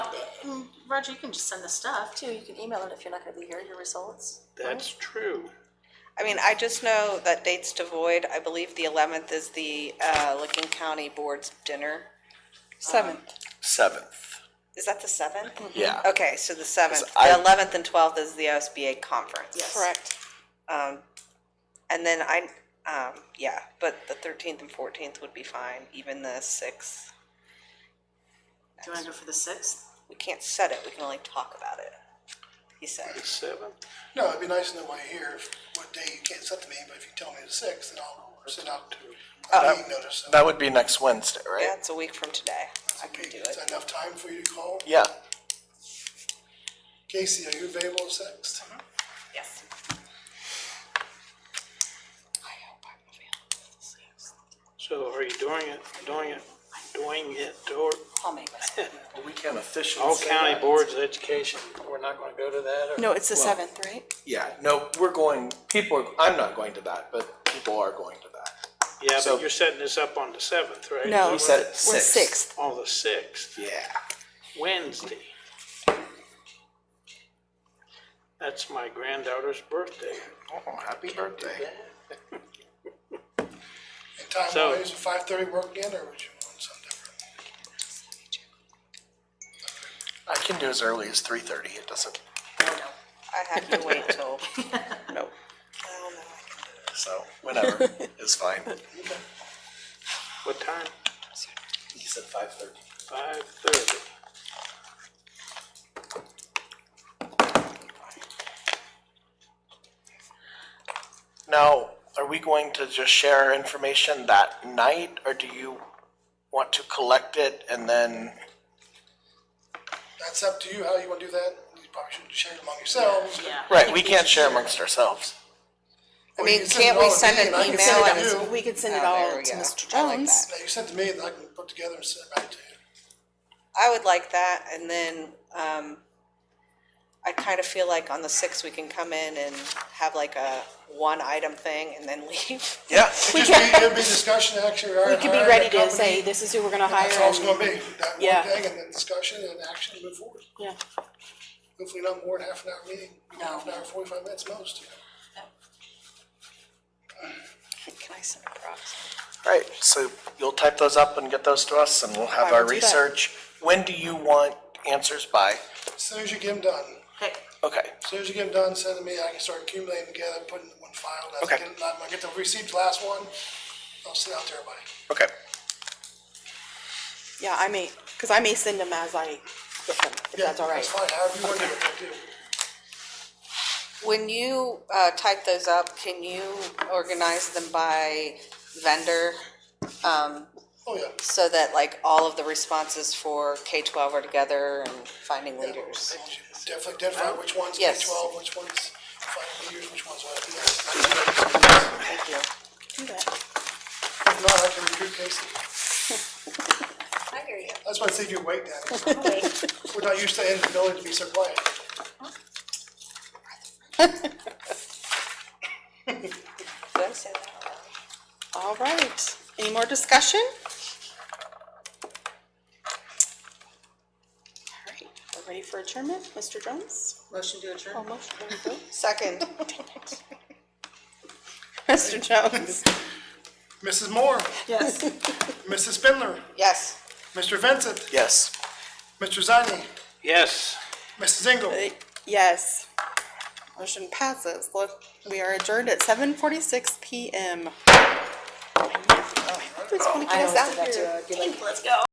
Roger, you can just send the stuff. Too, you can email it if you're not gonna be here, your results. That's true. I mean, I just know that dates to void, I believe the eleventh is the, uh, Licking County Board's dinner. Seventh, Seventh, is that the seventh? yeah. Okay, so the seventh, I- the eleventh and twelfth is the OSBA conference. Um, Yes. Correct. And then I, um, yeah, but the thirteenth and fourteenth would be fine, even the sixth. Do you wanna go for the sixth? We can't set it, we can only talk about it, he said. The seventh, No, it'd be nice to know what year, what day you can't set to me, but if you tell me the sixth, then I'll send out a meeting notice. Uh, That would be next Wednesday, Yeah, right? it's a week from today. I can do Is it. that enough time for you to call? Yeah. Casey, are you available the sixth? Mm-hmm. Yes. so are you doing it, doing it, doing it, or I'll make myself. We can officially. all say county that. boards of education, we're not gonna go to that, or? No, it's the seventh, right? Yeah, no, we're going, people, are- I'm not going to that, but people are going to that. Yeah, so- but you're setting this up on the seventh, right? No, We we're said it sixth. sixth. On the sixth, Yeah. Wednesday. That's my granddaughter's birthday. Oh, happy birthday. And time So- wise, five thirty work again, or would you want something different? I can do as early as three thirty, it doesn't, I have to wait till, no, I don't know, I can do so, whenever, is fine. What time? He said five thirty. Five thirty. Now, are we going to just share our information that night, or do you want to collect it and then? That's up to you, how you wanna do that, you probably should share it among yourselves. Yeah. Right, we can't share amongst ourselves. I Or you mean, can send can't it all we to send me an and I can email send it and to it's- you. We could send Oh, it there all we to go. Mr. I like Jones. Now, you send it to me, and I can put together and send it back to you. it. I would like that, and then, um, I kind of feel like on the sixth, we can come in and have like a one-item thing and then leave. Yeah. It'd just be, it'd be discussion, actually, or. We could be ready to say, this is who we're gonna hire. That's all it's and- gonna be, that Yeah. one thing, and then discussion and action, move forward. Yeah. Hopefully not more than half an hour meeting, half an hour, forty-five minutes most. Can I send a proxy? Right, so you'll type those up and get those to us, and we'll have I our will do that. research. When do you want answers by? As soon as you get them done, Okay, Okay, as soon as you get them done, send them to me, I can start accumulating together, putting it in one file. and as I Okay. get- When I get the received last one, I'll send out to everybody. okay. Yeah, I may, cause I may send them as I get them, if Yeah, that's all right. That's fine, however you want to do it, we'll do. it. When you uh, type those up, can you organize them by vendor Oh, yeah. so that like all of the responses for K twelve are together and finding leaders? Definitely identify which ones K Yes. twelve, which ones five years, which ones what. If Thank you. Do that. not, I can recruit Casey. I hear you. That's why I think you're waiting. We're not used to in the village to be so quiet. Did I say that out loud? All right, any more discussion? All right, we're ready for adjournment, Mr. Jones? motion to adjourn. Oh, motion, there we go. Second. Mr. Jones? Mrs. Moore, Yes. Mrs. Spindler, Yes. Mr. Vincent, Yes. Mr. Zani, Yes. Mrs. Engel. Yes. Motion passes. Look, we are adjourned at seven forty-six PM. Who's gonna get us out here? Let's go.